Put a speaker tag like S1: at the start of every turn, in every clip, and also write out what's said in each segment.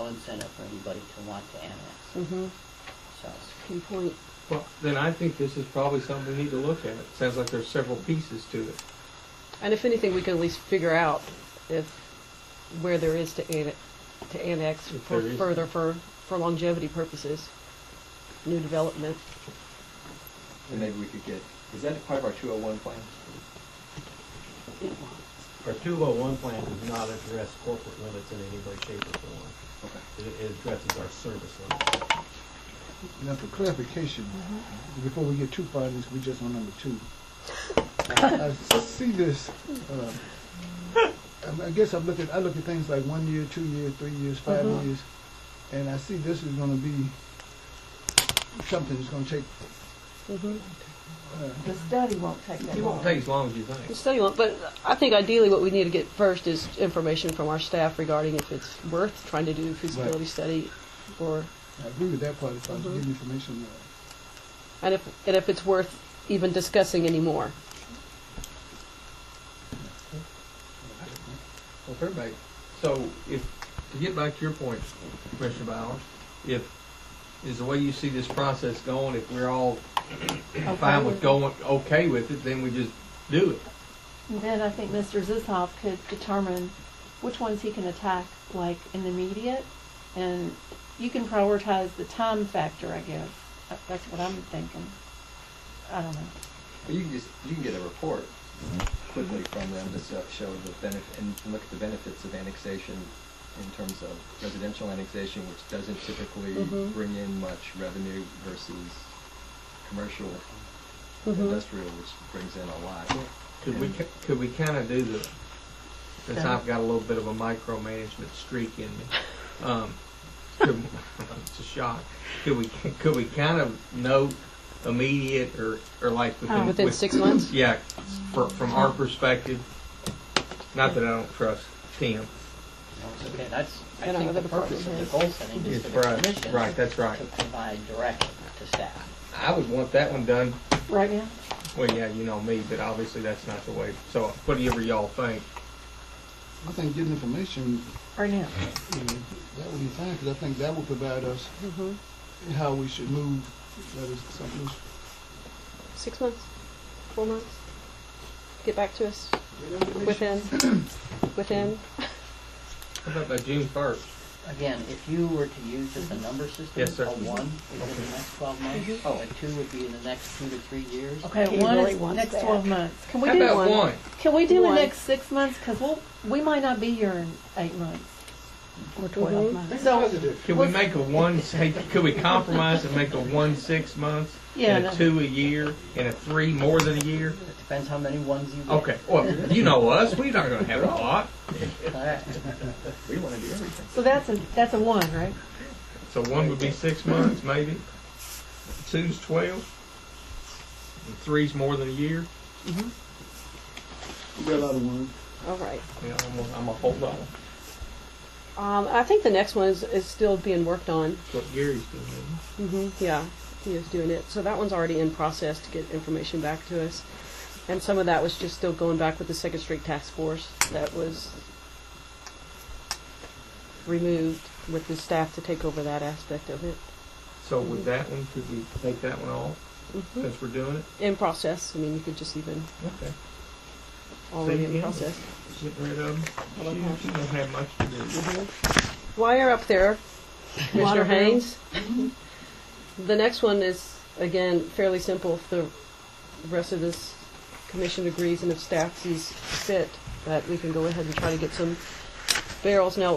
S1: incentive for anybody to want to annex,
S2: Mm-hmm,
S1: so.
S2: good point.
S3: Well, then I think this is probably something we need to look at. It sounds like there's several pieces to it.
S2: And if anything, we can at least figure out if, where there is to annex, to annex
S3: If
S2: for
S3: there is.
S2: further for, for longevity purposes, new development.
S4: And maybe we could get, is that part of our 201 plan?
S5: Our 201 plan does not address corporate limits in any way, shape, or form.
S4: Okay.
S5: It it addresses our service limits.
S6: Now, for clarification, before we get too far in this, we just on number two. I see this, uh, I- I guess I'm looking, I look at things like one year, two years, three years, 5
S2: Mhm.
S6: years, and I see this is gonna be something that's gonna take,
S2: Mm-hmm.
S6: uh,
S7: The study won't take that
S3: It won't
S7: long.
S3: take as long as you think.
S2: So you want, but I think ideally what we need to get first is information from our staff regarding if it's worth trying to do a feasibility
S6: Right.
S2: study, or
S6: I agree with that part, if I was
S2: Mhm.
S6: getting information, uh,
S2: and if and if it's worth even discussing anymore.
S3: Well, everybody, so if, to get back to your point, Commissioner Bowers, if, is the way you see this process going, if we're all fine with going, okay with it, then we just do it.
S7: And Then I think Mr. Zizhoff could determine which ones he can attack, like in the immediate, and you can prioritize the time factor, I guess. That- That's what I'm thinking. I don't know.
S4: But you can just, you can get a report quickly from them to so- show the benefit, and look at the benefits of annexation in terms of residential annexation, which doesn't typically
S2: Mhm.
S4: bring in much revenue versus commercial,
S3: Mm-hmm.
S2: Mhm.
S4: industrial, which brings in a lot.
S3: Could we, ki- could we kind of do the, since I've got a little bit of a micromanagement streak in me, um, could- it's a shock. Could we, could we kind of note immediate or, or like within?
S2: Uh, Within
S3: with-
S2: six months.
S3: Yeah, for, from our perspective, not that I don't trust Tim.
S1: No, it's okay, that's, I
S2: And
S1: think the
S2: another part
S1: purpose of the
S2: is-
S1: goal setting is
S3: It's
S1: for the
S3: right,
S1: commission.
S3: right, that's right.
S1: To provide direction to staff.
S3: I would want that one done,
S7: Right now?
S3: well, yeah, you know me, but obviously that's not the way, so whatever y'all think.
S6: I think getting information,
S7: Right now.
S6: you know, that would be fine, because I think that will provide us
S2: Mhm.
S6: how we should move, that is something that's
S2: Six months, four months. Get back to us within within.
S3: How about by June first?
S1: Again, if you were to use just a number system,
S3: Yes, sir.
S1: a one would be the next twelve months,
S4: Mhm.
S1: a two would be in the next two to three years.
S7: Okay,
S2: He
S7: one
S2: really
S7: is
S2: wants
S7: next
S2: that.
S7: twelve months. Can we
S3: How
S7: do
S3: about one?
S7: Can we do
S2: One.
S7: the next six months? Because we'll, we might not be here in eight months. Or
S2: Mhm.
S7: twelve months. So,
S3: Could we make a one, hey, could we compromise and make a one six months?
S7: yeah,
S3: And a
S7: no.
S3: two a year, and a three more than a year?
S1: It depends how many ones you get.
S3: Okay, well, you know us, we're not gonna have a lot,
S1: All right.
S4: We want to do everything.
S7: So that's a, that's a one, right?
S3: so one would be six months, maybe. Two's twelve, and three's more than a year.
S6: We got a lot of ones.
S2: All right.
S3: Yeah, I'm a, I'm a hold on.
S2: Um, I think the next one is, is still being worked on.
S3: That's what Gary's doing.
S2: hmm Yeah, he is doing it. So that one's already in process to get information back to us. And some of that was just still going back with the Second Street Task Force that was removed with the staff to take over that aspect of it.
S3: So with that one, could we take that one off
S2: hmm
S3: since we're doing it?
S2: In process. I mean, you could just even
S3: Okay.
S2: already in
S3: yeah.
S2: process.
S3: Getting rid of them. She, she don't have much to do.
S2: While you're up there, Commissioner
S7: Water bill.
S2: Haynes, the next one is, again, fairly simple. If the rest of this commission agrees and if staff sees fit, that we can go ahead and try to get some barrels. Now,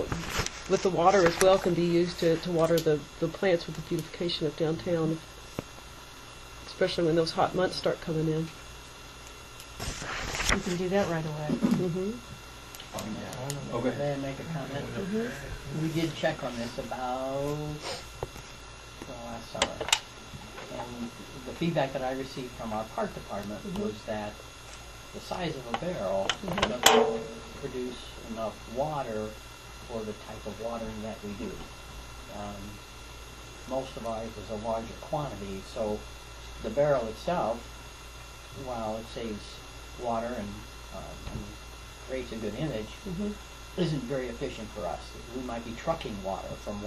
S2: with the water as well, can be used to, to water the, the plants with the beautification of downtown, especially when those hot months start coming in.
S7: We can do that right away.
S2: Mm-hmm.
S4: Oh, go ahead.
S1: May I make a comment? Mm-hmm. We did check on this about oh, the last summer. And the feedback that I received from our park department was that the size of a barrel doesn't produce enough water for the type of watering that we do. Um, Most of ours is a larger quantity, so the barrel itself, while it saves water and um, and creates a good image, isn't very efficient for us. We might be trucking water from